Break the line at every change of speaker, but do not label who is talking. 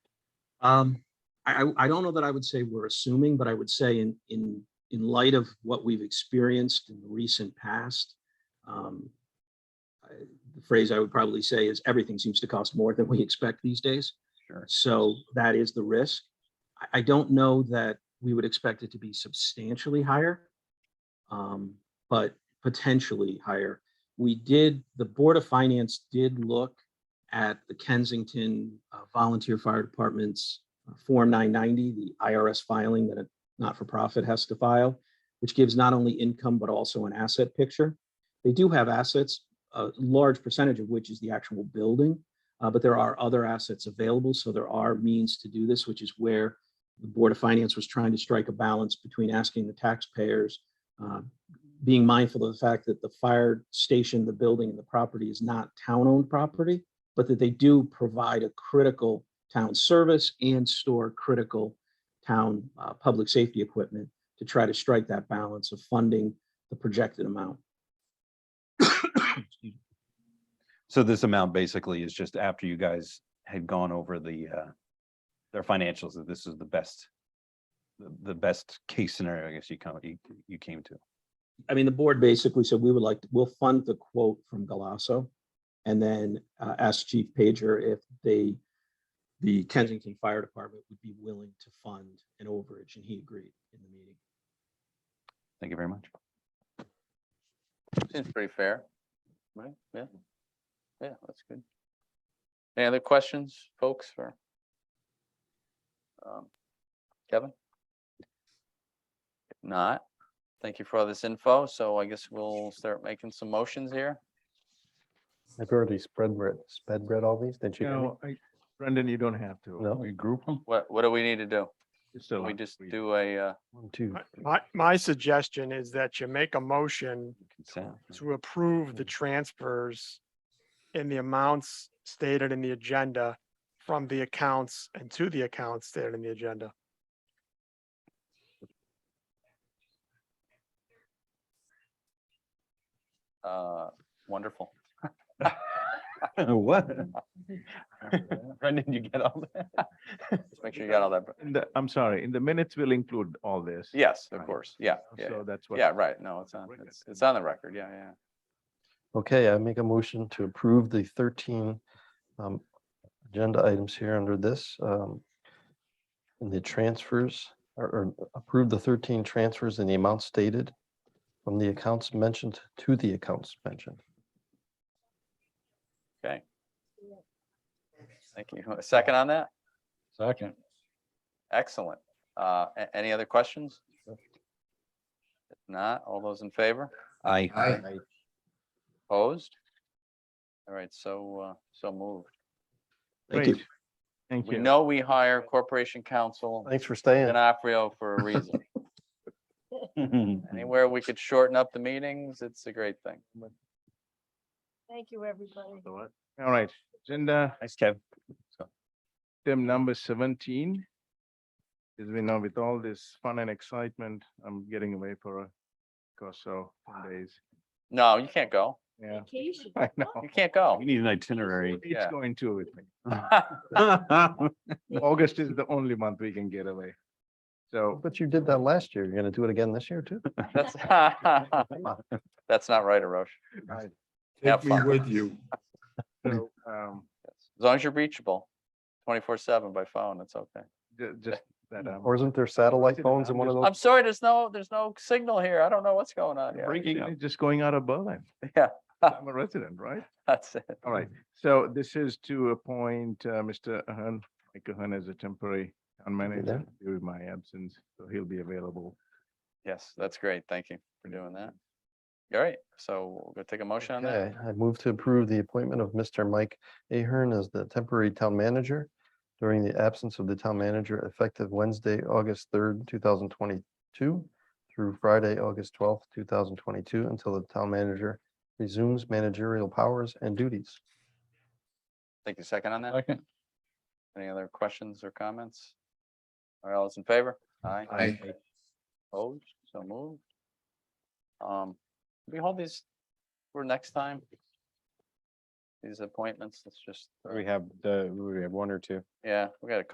Um, I, I- I don't know that I would say we're assuming, but I would say in, in, in light of what we've experienced in the recent past, um, I- the phrase I would probably say is everything seems to cost more than we expect these days.
Sure.
So that is the risk. I, I don't know that we would expect it to be substantially higher. um, But potentially higher. We did, the Board of Finance did look at the Kensington uh, Volunteer Fire Department's uh, Form 990, the IRS filing that a not-for-profit has to file, which gives not only income but also an asset picture. They do have assets, a large percentage of which is the actual building, uh, but there are other assets available, so there are means to do this, which is where the Board of Finance was trying to strike a balance between asking the taxpayers, uh, being mindful of the fact that the fire station, the building, and the property is not town-owned property, but that they do provide a critical town service and store critical town uh, public safety equipment to try to strike that balance of funding the projected amount. Excuse me.
So this amount basically is just after you guys had gone over the, uh, their financials, that this is the best, the, the best case scenario, I guess you come, you, you came to.
I mean, the board basically said, we would like, to we'll fund the quote from Galasso. And then uh, ask Chief Pager if they, the Kensington Fire Department would be willing to fund an overage, and he agreed in the meeting.
Thank you very much.
Seems pretty fair, right? Yeah. Yeah, that's good. Any other questions, folks, or? um, Kevin? If not, thank you for all this info. So I guess we'll start making some motions here.
I've already spread read, sped read all these, didn't you? hear me?
No, I, Brendan, you don't have to.
No.
We group them?
What, what do we need to do?
Just a
We
lot.
just do a, uh,
One, two,
My- My, my suggestion is that you make a motion
Consent.
to approve the transfers in the amounts stated in the agenda from the accounts and to the accounts stated in the agenda.
uh, wonderful.
What?
Brendan, you get all that? Just Make sure you got all that. Br-
In the- I'm sorry, in the minutes we will include all this.
Yes, of
Right.
course. Yeah, yeah,
So that's
yeah.
what.
yeah, right. No, it's on,
Record.
it's, it's on the record. Yeah, yeah.
okay, I make a motion to approve the thirteen um, agenda items here under this. um, And the transfers, or, or approve the thirteen transfers in the amount stated from the accounts mentioned to the accounts mentioned.
Thank you. A second on that?
Second.
Excellent. Uh, a- any other questions? If not, all those in favor?
I,
Aye.
Opposed? All right, so, uh, so moved.
Thank you.
Great. Thank
We
you.
know we hire corporation counsel
Thanks for staying.
D'Onofrio for a reason. Anywhere we could shorten up the meetings, it's a great thing.
Thank you, everybody.
All right, agenda
Thanks, Kev.
item number seventeen. As we know, with all this fun and excitement, I'm getting away for a, course, so ten days.
No, you can't go.
Yeah,
Vacation.
I know.
You can't go.
We need an itinerary.
It's
Yeah.
going to with me.
Well,
August is the only month we can get away. So
But you did that last year. You're gonna do it again this year too?
That's that's not right, Arash. Have
Take me
fun.
with you.
so, um,
As long as you're reachable, twenty-four seven by phone, it's okay.
ju- just that. um,
Or isn't there satellite
Sit
phones in
around,
one of
just-
those?
I'm sorry, there's no, there's no signal here. I don't know what's going on here.
breaking up, just going out of Berlin.
Yeah.
I'm a resident, right?
That's it.
All right, so this is to appoint uh, Mr. Ahern, Mike Ahern as a temporary town manager
there.
during my absence, so he'll be available.
Yes, that's great. Thank you for doing that. All right, so we'll go take a motion on that.
Okay, I move to approve the appointment of Mr. Mike Ahern as the temporary town manager during the absence of the town manager effective Wednesday, August third, two thousand twenty-two through Friday, August twelfth, two thousand twenty-two, until the town manager resumes managerial powers and duties.
Take a second on that.
Second.
Any other questions or comments? All right, all those in favor? Aye.
Aye.
Opposed, so moved. Um, we hold these for next time? These appointments, it's just, uh,
have, we have one or two.
yeah, we got a